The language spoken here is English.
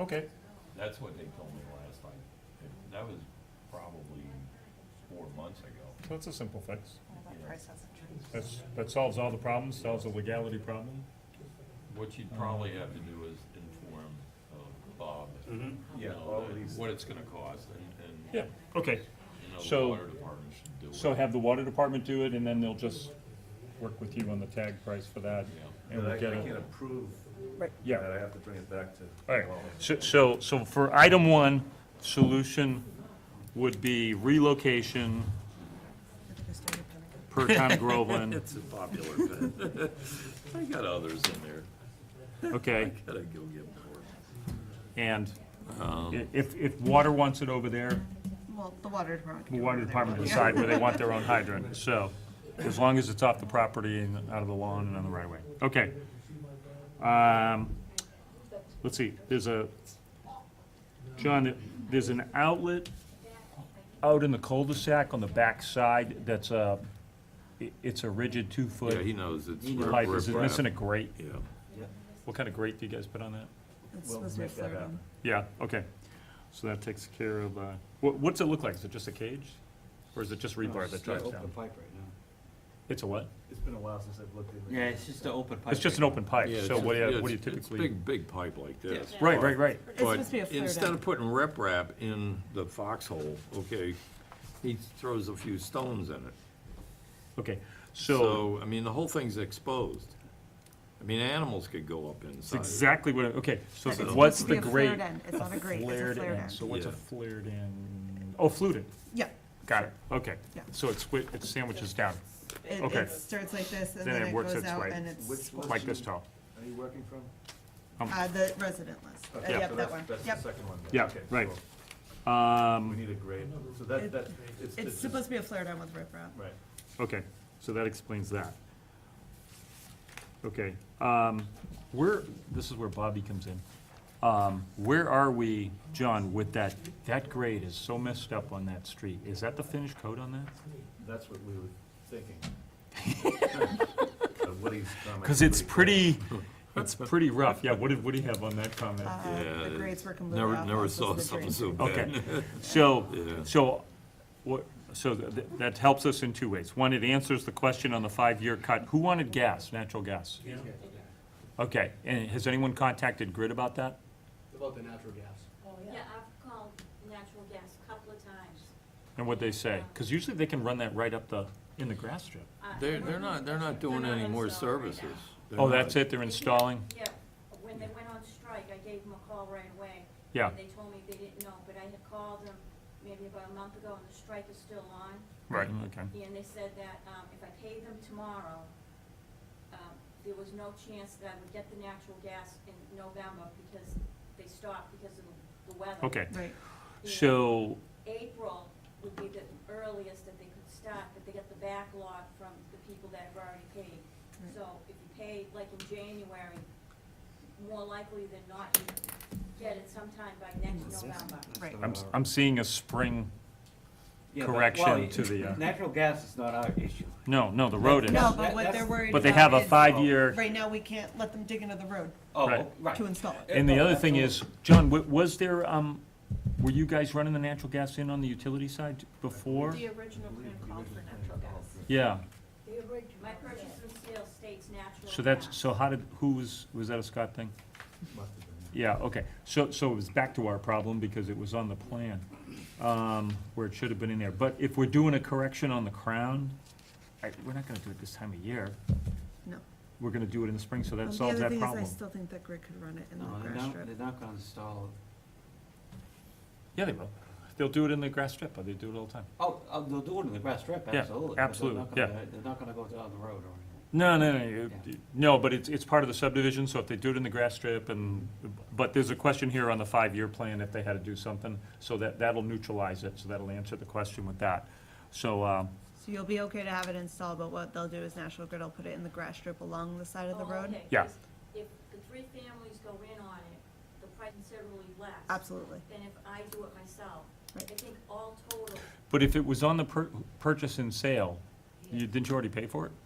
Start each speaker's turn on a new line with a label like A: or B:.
A: Okay,
B: That's what they told me last time. It- That was probably four months ago.
A: so it's a simple fix.
B: Yeah.
C: That price hasn't changed.
A: That's, that solves all the problems, solves the legality problem.
B: What
A: Uh-huh.
B: you'd probably have to do is inform uh, Bob.
A: Mm-hmm.
B: you
D: Yeah,
B: know,
D: all
B: that-
D: these-
B: What it's gonna cost and,
A: Yeah,
B: and,
A: okay.
B: you know, the
A: So-
B: water department should do it.
A: So have the water department do it, and then they'll just work with you on the tag price for that.
B: Yeah.
A: And
D: But I
A: we'll
D: I
A: get
D: can't
A: it.
D: approve
A: Yeah.
D: that, I have to bring it back to.
A: All right,
D: Well,
A: so- so, so for item one, solution would be relocation per town of Groveland,
B: It's a popular thing. I got others in there.
A: okay?
B: Gotta go get more.
A: And i- if, if water wants it over there,
C: Well, the water department.
A: the
C: can
A: water
C: do it.
A: department will
C: Yeah.
A: decide where they want their own hydrant, so, as long as it's off the property and out of the lawn and on the right of way, okay. Um, let's see, there's a, John, there's an outlet out in the cul-de-sac on the back side that's a, i- it's a rigid
B: Yeah, he
A: two-foot
B: knows it's.
A: pipe, is it
B: riprap.
A: missing a grate?
B: Yeah.
A: What kind of grate do you guys put on that?
C: It's
D: We'll
C: supposed to be
D: make that
C: flirting.
D: happen.
A: Yeah, okay. So that takes care of, uh, what, what's it look like? Is it just a cage? Or is it just rebar that drives
E: Open
A: down?
E: pipe right now.
A: It's a what?
D: It's been a while since I've looked in.
E: Yeah, it's just an open pipe.
A: It's just an
E: right
A: open pipe,
B: Yeah, it's
A: so
B: just-
A: what do
B: yeah,
A: you, what
B: it's-
A: do you
B: it's
A: typically?
B: Big, big pipe like this.
A: Right, right, right.
C: It's
B: But
C: supposed to be a flare
B: instead
C: down.
B: of putting riprap in the foxhole, okay, he throws a few stones in it.
A: Okay, so,
B: So, I mean, the whole thing's exposed. I mean, animals could go up
A: it's
B: inside.
A: exactly what, I- okay, so
C: It's supposed
A: what's
C: to
A: the
C: be a
A: grade?
C: flared end. It's not a grate, it's a
A: flared
C: flared
A: end.
C: end.
A: So what's a
B: Yeah.
A: flared end? Oh, fluted,
C: Yeah.
A: got it, okay.
C: Yeah.
A: So it's, wi- it sandwiches down,
C: It,
A: Okay.
C: it starts like this and
A: Then
C: then
A: it
C: it
A: works
C: goes
A: its
C: out
A: way.
C: and it's,
D: Which one?
A: like this tall.
D: Are you working from?
C: uh, the resident list. Uh,
D: Okay, so
C: Yep, that
D: that's-
C: one.
D: That's the
C: Yep.
D: second one. then.
A: Yeah,
D: Okay,
A: right.
D: cool. We
A: Um,
D: need a grade, so that,
C: It-
D: that, it's.
C: It's supposed to be a flare down with riprap. Uh,
D: Right.
A: Okay, so that explains that. Okay, um, where, this is where Bobby comes in. Um, where are we, John, with that, that grade is so messed up on that street. Is that the finished coat on that?
D: That's what we were thinking. Of Woody's comment.
A: Cause it's pretty, it's pretty rough. Yeah, what did Woody have on that comment?
C: Uh,
B: Yeah,
C: The grades were completely
B: Never,
C: off.
B: never
C: also
B: saw
C: the
B: something
C: drains.
B: so
A: Okay,
B: bad.
A: so,
B: Yeah.
A: so, what, so th- that helps us in two ways. One, it answers the question on the five-year cut. Who wanted gas, natural gas? Okay, and has anyone contacted Grid about that?
F: About the natural gas.
G: Yeah, I've called natural gas a couple of times.
A: And what they say? Because usually they can run that right up the, in the grass strip.
G: Uh,
B: They're, they're not, they're not doing any more
G: installed right now.
B: services. They're
A: Oh,
B: not.
A: that's it, they're installing?
G: uh, Yeah, when they went on strike, I gave them a call right away.
A: Yeah.
G: And they told me they didn't know, but I had called them maybe about a month ago and the strike is still on.
A: Right.
B: Mm-hmm.
A: Mm, Okay.
G: And they said that, um, if I paid them tomorrow, um, there was no chance that I would get the natural gas in November because they stopped because of the weather.
A: Okay,
C: Right.
A: so,
G: April would be the earliest that they could start, but they get the backlog from the people that have already paid.
C: Right.
G: So if you pay, like in January, more likely than not, you get it sometime by next November.
C: Right.
A: I'm, s- I'm seeing a spring,
E: Yeah, but-
A: correction
E: well,
A: to the, uh,
E: Natural gas is not our issue.
A: no, no, the road is.
C: No,
E: That-
C: but what
E: that's-
C: they're worried
A: But they have
C: about
A: a
C: is-
A: five-year,
C: Right now, we can't let them dig into the road
E: Oh,
A: Right.
E: right.
C: to install it.
A: and the other thing is, John, wa- was there, um, were you guys running the natural gas in on the utility side before?
H: The original plan called for natural gas.
A: Yeah,
G: My purchase and sale states natural
A: so that's,
G: gas.
A: so how did, who was, was that a Scott thing?
D: Must have been.
A: Yeah, okay, so, so it was back to our problem because it was on the plan, um, where it should have been in there. But if we're doing a correction on the crown, I, we're not gonna do it this time of year,
C: No.
A: we're gonna do it in the spring, so
C: Um,
A: that
C: The
A: solves
C: other
A: that
C: thing is, I
A: problem.
C: still think that grid could run it in the
E: No, they're
C: grass
E: not,
C: strip.
E: they're not gonna install,
A: Yeah, they will, they'll do it in the grass strip, or they do it all the time.
E: oh, oh, they'll do it in the grass strip,
A: Yeah,
E: absolutely. but they're
A: absolutely,
E: not gonna-
A: yeah.
E: They're not gonna go down the road or anything.
A: No, no, no, you-
E: Yeah.
A: no, but it's, it's part of the subdivision, so if they do it in the grass strip and, but there's a question here on the five-year plan if they had to do something, so that, that'll neutralize it, so that'll answer the question with that. So, um,
C: So you'll be okay to have it installed, but what they'll do is National Grid will put it in the grass strip along the side of the
G: Oh,
C: road?
G: okay,
A: Yeah.
G: 'cause If the three families go in on it, the price considerably less.
C: Absolutely.
G: Than if I do it myself. I
C: Right.
G: think all total,
A: But if it was on the pur- purchase and sale, you, didn't you already pay for it?
G: um,